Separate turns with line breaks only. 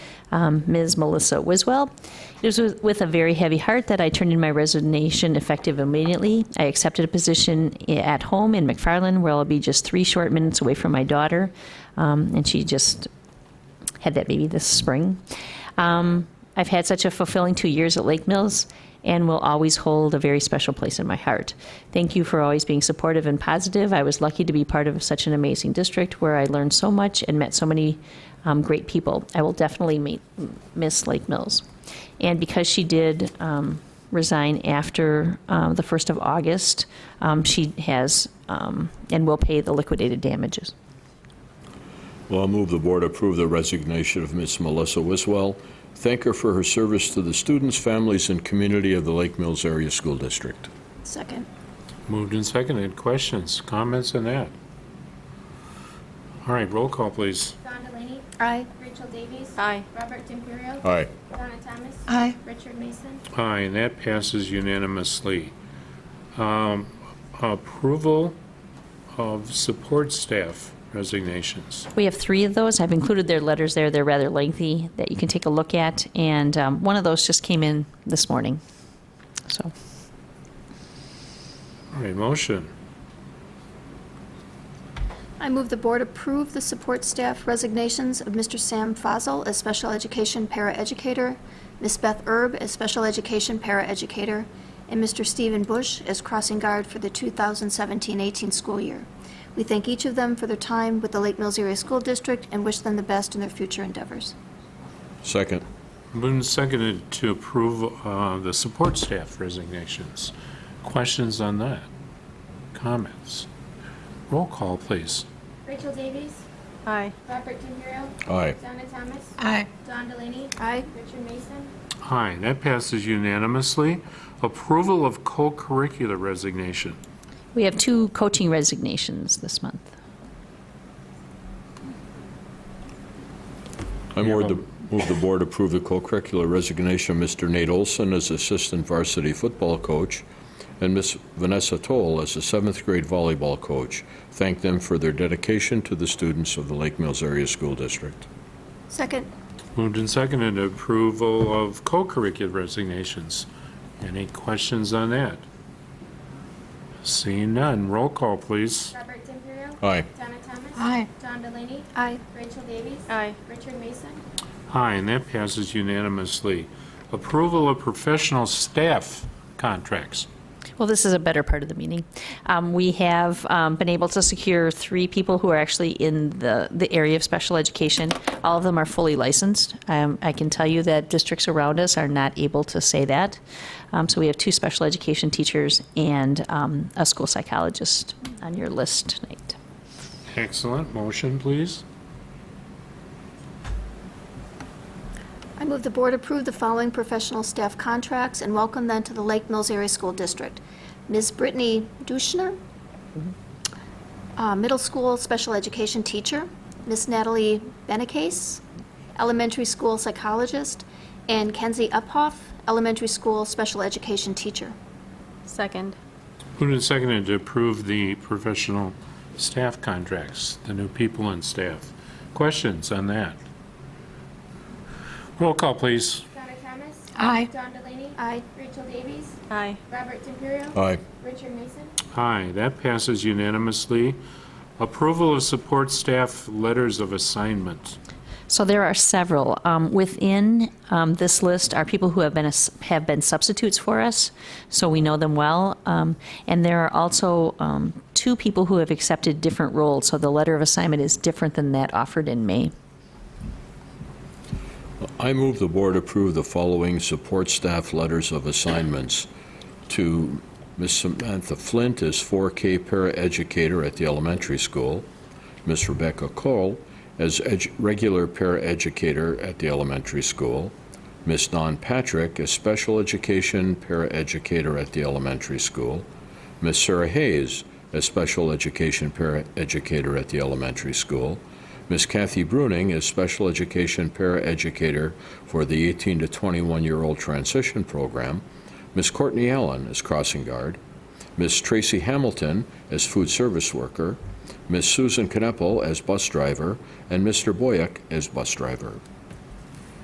um, Ms. Melissa Wiswell. It was with- with a very heavy heart that I turned in my resignation effective immediately. I accepted a position i- at home in McFarland, where I'll be just three short minutes away from my daughter, um, and she just had that baby this spring. Um, I've had such a fulfilling two years at Lake Mills and will always hold a very special place in my heart. Thank you for always being supportive and positive. I was lucky to be part of such an amazing district where I learned so much and met so many um, great people. I will definitely meet, miss Lake Mills. And because she did um, resign after uh, the 1st of August, um, she has um, and will pay the liquidated damages.
Well, I'll move the board approve the resignation of Ms. Melissa Wiswell. Thank her for her service to the students, families, and community of the Lake Mills Area School District.
Second.
Moved and seconded. Questions, comments on that? All right, roll call, please.
Don Delaney.
Aye.
Rachel Davies.
Aye.
Robert D'Imperio.
Aye.
Donna Thomas.
Aye.
Richard Mason.
Aye, and that passes unanimously. Um, Approval of support staff resignations.
We have three of those. I've included their letters there. They're rather lengthy that you can take a look at. And um, one of those just came in this morning. So
All right, motion.
I move the board approve the support staff resignations of Mr. Sam Fozzle as special education paraeducator, Ms. Beth Erb as special education paraeducator, and Mr. Stephen Bush as crossing guard for the 2017-18 school year. We thank each of them for their time with the Lake Mills Area School District and wish them the best in their future endeavors.
Second.
Moved and seconded to approve uh, the support staff resignations. Questions on that? Comments? Roll call, please.
Rachel Davies.
Aye.
Robert D'Imperio.
Aye.
Donna Thomas.
Aye.
Don Delaney.
Aye.
Richard Mason.
Aye, that passes unanimously. Approval of co-curricular resignation.
we have two coaching resignations this month.
I move the, move the board approve the co-curricular resignation of Mr. Nate Olson as assistant varsity football coach and Ms. Vanessa Toll as a seventh grade volleyball coach. Thank them for their dedication to the students of the Lake Mills Area School District.
Second.
Moved and seconded approval of co-curricular resignations. Any questions on that? Seeing none, roll call, please.
Robert D'Imperio.
Aye.
Donna Thomas.
Aye.
Don Delaney.
Aye.
Rachel Davies.
Aye.
Richard Mason.
Aye, and that passes unanimously. Approval of professional staff contracts.
Well, this is a better part of the meeting. Um, we have um, been able to secure three people who are actually in the, the area of special education. All of them are fully licensed. Um, I can tell you that districts around us are not able to say that. Um, so we have two special education teachers and um, a school psychologist on your list tonight.
Excellent. Motion, please.
I move the board approve the following professional staff contracts and welcome them to the Lake Mills Area School District. Ms. Brittany Duschner, uh, middle school special education teacher. Ms. Natalie Benecase, elementary school psychologist. And Kenzie Uphoff, elementary school special education teacher.
Second.
Moved and seconded to approve the professional staff contracts, the new people and staff. Questions on that? Roll call, please.
Donna Thomas.
Aye.
Don Delaney.
Aye.
Rachel Davies.
Aye.
Robert D'Imperio.
Aye.
Richard Mason.
Aye, that passes unanimously. Approval of support staff letters of assignment.
So there are several. Um, within um, this list are people who have been ass- have been substitutes for us, so we know them well. Um, and there are also um, two people who have accepted different roles. So the letter of assignment is different than that offered in May.
I move the board approve the following support staff letters of assignments to Ms. Samantha Flint as 4K paraeducator at the elementary school, Ms. Rebecca Cole as edu- regular paraeducator at the elementary school, Ms. Don Patrick as special education paraeducator at the elementary school, Ms. Sarah Hayes as special education paraeducator at the elementary school, Ms. Kathy Bruning is special education paraeducator for the 18 to 21-year-old transition program. Ms. Courtney Allen is crossing guard. Ms. Tracy Hamilton as food service worker. Ms. Susan Kneppel as bus driver, and Mr. Boyack as bus driver.